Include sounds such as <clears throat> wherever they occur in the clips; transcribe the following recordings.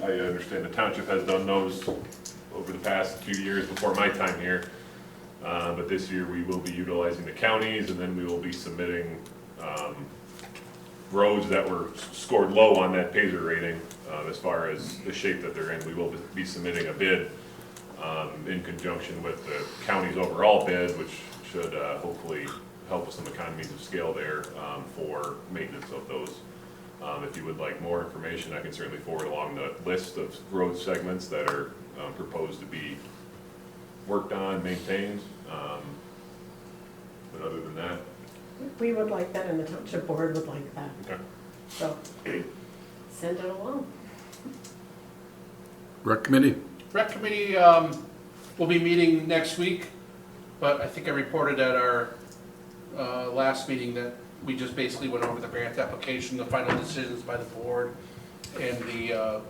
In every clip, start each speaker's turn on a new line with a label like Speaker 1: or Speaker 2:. Speaker 1: I understand the township has done those over the past two years before my time here. Uh, But this year, we will be utilizing the counties, and then we will be submitting um, roads that were scored low on that Pazer rating uh, as far as the shape that they're in. We will be submitting a bid um, in conjunction with the county's overall bid, which should uh, hopefully help with some economies of scale there um, for maintenance of those. Um, If you would like more information, I can certainly forward along the list of road segments that are um, proposed to be worked on, maintained. Um, But other than that,
Speaker 2: We would like that, and the township board would like that,
Speaker 1: okay.
Speaker 2: so send it along.
Speaker 3: Rec committee?
Speaker 4: Rec committee, um, will be meeting next week, but I think I reported at our, uh, last meeting that we just basically went over the grant application, the final decisions by the board, and the, uh,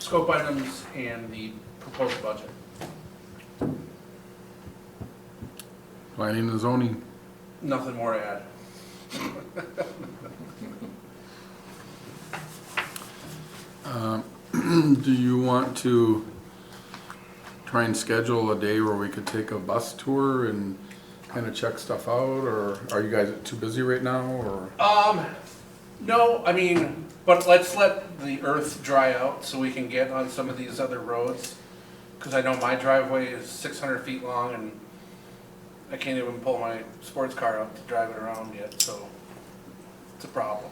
Speaker 4: scope items and the proposed budget.
Speaker 3: Planning and zoning? <clears throat>
Speaker 4: Nothing more to add.
Speaker 3: Do you want to try and schedule a day where we could take a bus tour and kind of check stuff out? Or are you guys too busy right now or?
Speaker 4: Um, no, I mean, but let's let the earth dry out so we can get on some of these other roads. Cause I know my driveway is six hundred feet long and I can't even pull my sports car out to drive it around yet, so it's a problem.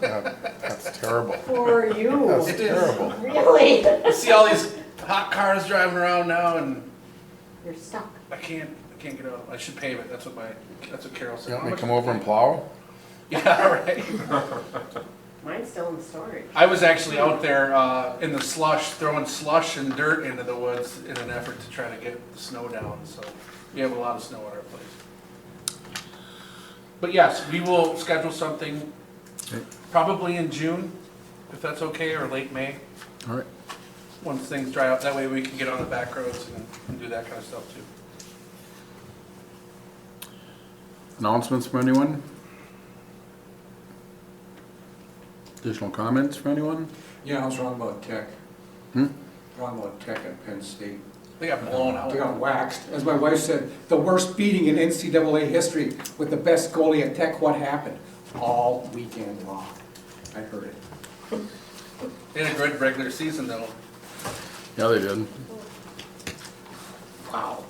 Speaker 3: That- That's terrible.
Speaker 2: For
Speaker 4: <laughs>
Speaker 2: you.
Speaker 3: That's
Speaker 4: It is.
Speaker 3: terrible.
Speaker 2: Really?
Speaker 4: I see all these hot cars driving around now and
Speaker 2: You're stuck.
Speaker 4: I can't, I can't get out. I should pave it, that's what my, that's what Carol
Speaker 3: You
Speaker 4: said.
Speaker 3: want me to come over and plow?
Speaker 4: <laughs> Yeah, right.
Speaker 2: Mine's still in storage.
Speaker 4: I was actually out there uh, in the slush, throwing slush and dirt into the woods in an effort to try to get the snow down, so we have a lot of snow at our place. But yes, we will schedule something
Speaker 3: Okay.
Speaker 4: probably in June, if that's okay, or late May,
Speaker 3: All right.
Speaker 4: once things dry out. That way we can get on the back roads and- and do that kind of stuff too.
Speaker 3: Announcements from anyone? Additional comments from anyone?
Speaker 5: Yeah, I was wrong about tech.
Speaker 3: Hmm?
Speaker 5: Wrong about tech at Penn State.
Speaker 4: They got blown
Speaker 5: They
Speaker 4: out.
Speaker 5: got waxed. As my wife said, the worst beating in NCAA history with the best goalie at Tech. What happened? All weekend long. I heard it.
Speaker 4: They had a good regular season though.
Speaker 3: Yeah, they did.
Speaker 5: Wow.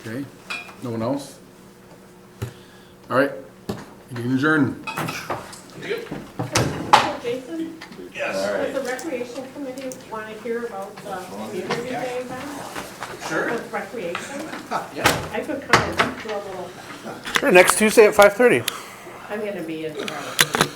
Speaker 3: Okay. No one else? All right. You can adjourn.
Speaker 2: Jason,
Speaker 4: Yes.
Speaker 2: does the recreation committee want to hear about the community day event
Speaker 4: Sure,
Speaker 2: with recreation?
Speaker 4: <laughs> yeah.
Speaker 2: I could come and do a little,
Speaker 6: Sure, next Tuesday at 5:30.
Speaker 2: I'm gonna be in town.